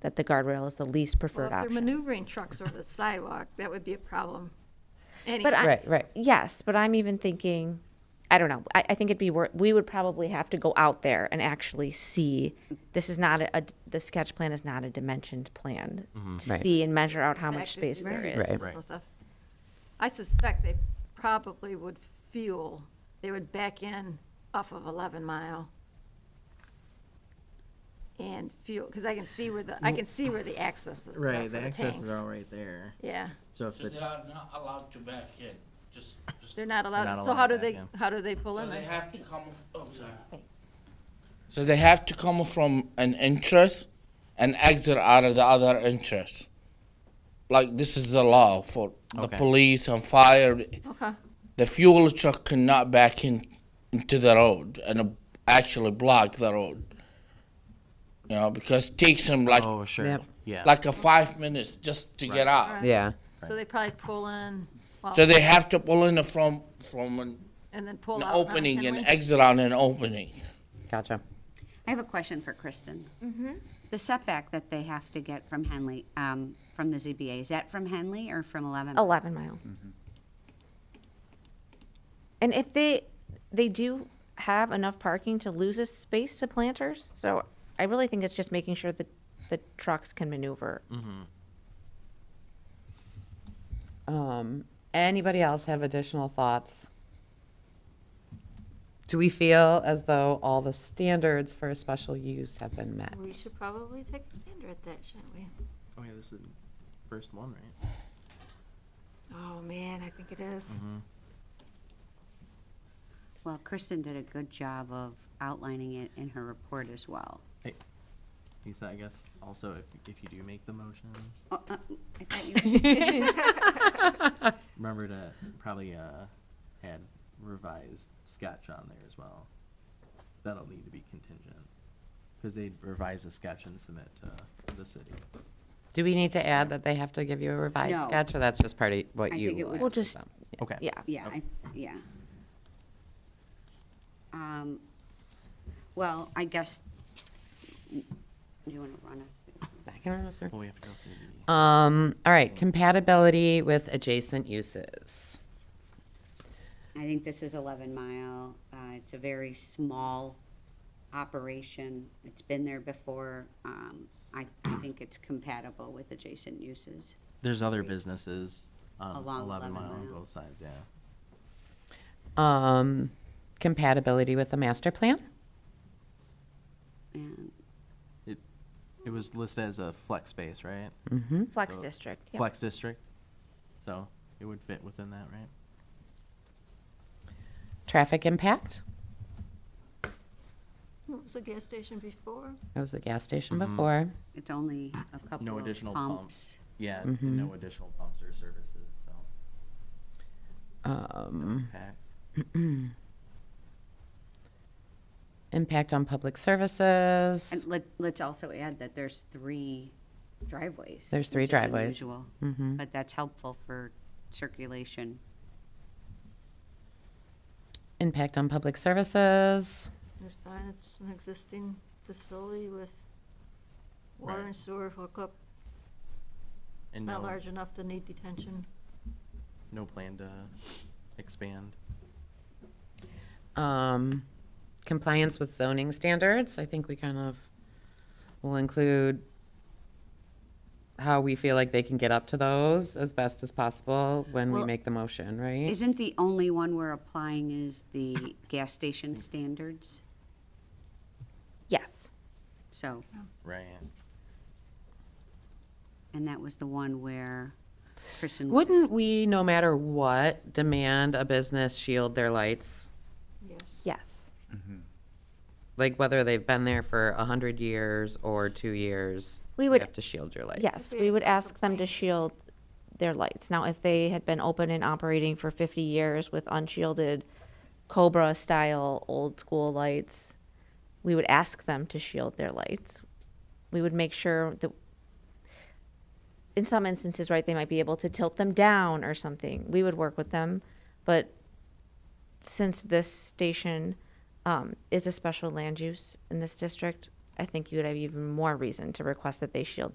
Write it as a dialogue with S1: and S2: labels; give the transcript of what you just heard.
S1: that the guardrail is the least
S2: Well,
S1: preferred
S2: if they're
S1: option.
S2: maneuvering trucks over the sidewalk, that would be a problem.
S1: But I,
S3: Right, right.
S1: Yes, but I'm even thinking, I don't know. I, I think it'd be worth. We would probably have to go out there and actually see. This is not a, a- the sketch plan is not a dimensioned plan to
S3: Mm-hmm. Right.
S1: see and measure out how
S2: to
S1: much
S2: actually
S1: space
S2: see
S1: there
S2: boundaries
S1: is.
S3: Right.
S2: and some stuff. I suspect they probably would feel, they would back in off of 11 Mile and fuel, because I can see where the, I can see where the access is. uh,
S4: Right,
S2: for
S4: the accesses
S2: tanks.
S4: are all right there.
S2: Yeah,
S4: So if
S5: So
S4: the,
S5: they are not allowed to back in, just, just,
S2: they're not allowed,
S4: not
S2: so how
S4: allowed
S2: do
S4: back
S2: they,
S4: in.
S2: how do they pull
S5: so
S2: in?
S5: they
S2: there?
S5: have to come, f- oh, sorry. So they have to come from an entrance and exit out of the other entrance. Like, this is the law for the
S4: Okay.
S5: police and fire.
S2: Okay,
S5: The fuel truck cannot back in, into the road and uh, actually block the road. You know, because it takes them like,
S4: oh, sure,
S3: Yep.
S4: yeah.
S5: like a five minutes just to get out.
S3: Yeah.
S2: so they probably pull in, well,
S5: So they have to pull in from, from an
S2: and then pull
S5: an
S2: out. around
S5: opening and
S2: Henley?
S5: exit on an opening.
S3: Gotcha.
S6: I have a question for Kristen. The setback that they have to get from Henley, um, from the ZBA, is that from Henley or from 11?
S1: Eleven mile.
S3: Mm-hmm.
S1: And if they, they do have enough parking to lose a space to planters, so I really think it's just making sure that the trucks can maneuver.
S3: Mm-hmm. Um, anybody else have additional thoughts? Do we feel as though all the standards for a special use have been met?
S2: We should probably take a gander at that, shouldn't we?
S4: Oh, yeah, this is the first one, right?
S2: Oh, man, I think it is.
S4: Mm-hmm.
S6: Well, Kristen did a good job of outlining it in her report as well.
S4: Lisa, I guess, also, if, if you do make the motion,
S6: Oh, uh, I thought you-
S4: remember to probably, uh, add revised sketch on there as well. That'll need to be contingent, because they'd revise the sketch and submit to the city.
S3: Do we need to add that they have to give you a revised
S6: No.
S3: sketch, or that's just part of what
S6: I
S3: you?
S6: think it was.
S1: We'll just,
S4: Okay.
S1: yeah.
S6: Yeah, I, yeah. Um, Well, I guess, do you want to run us? through?
S3: I can run us through.
S4: Well, we have to go through the,
S3: Um, all right, compatibility with adjacent uses.
S6: I think this is 11 Mile. Uh, It's a very small operation. It's been there before. Um, I I think it's compatible with adjacent uses.
S4: there's other businesses on
S6: Along
S4: eleven
S6: 11
S4: mile on
S6: Mile.
S4: both sides, yeah.
S3: Um, compatibility with the master plan?
S6: And
S4: It, it was listed as a flex space, right?
S1: Flex district. yeah.
S4: Flex district, so it would fit within that, right?
S3: Traffic impact?
S2: What was the gas station before?
S3: That was the gas station
S6: Mm-hmm.
S3: before.
S6: it's only a couple
S4: No
S6: of
S4: additional pumps.
S6: pumps.
S4: Yeah, and
S2: Mm-hmm.
S4: no additional pumps or services, so.
S3: Um,
S4: Packs.
S3: impact on public services.
S6: And let- let's also add that there's three driveways.
S3: There's three
S6: which is
S3: driveways. Mm-hmm.
S6: unusual, But that's helpful for circulation.
S3: Impact on public services.
S2: It's fine, it's an existing facility with water
S4: Right.
S2: and sewer hookup. It's
S4: And
S2: not
S4: no,
S2: large enough to need detention.
S4: no plan to expand.
S3: Um, compliance with zoning standards. I think we kind of will include how we feel like they can get up to those as best as possible when we
S6: Well,
S3: make the motion, right?
S6: Isn't the only one we're applying is the gas station
S4: Mm.
S6: standards?
S1: Yes.
S6: So,
S4: Right.
S6: and that was the one where Kristen was
S3: Wouldn't we, no matter what, demand a business shield their lights?
S2: Yes.
S1: Yes.
S3: Like whether they've been there for a hundred years or two years,
S1: We
S3: you
S1: would-
S3: have to shield your lights.
S1: Yes, we would ask them to shield their lights. Now, if they had been open and operating for 50 years with unshielded Cobra style old school lights, we would ask them to shield their lights. We would make sure that in some instances, right, they might be able to tilt them down or something. We would work with them, but since this station um, is a special land use in this district, I think you would have even more reason to request that they shield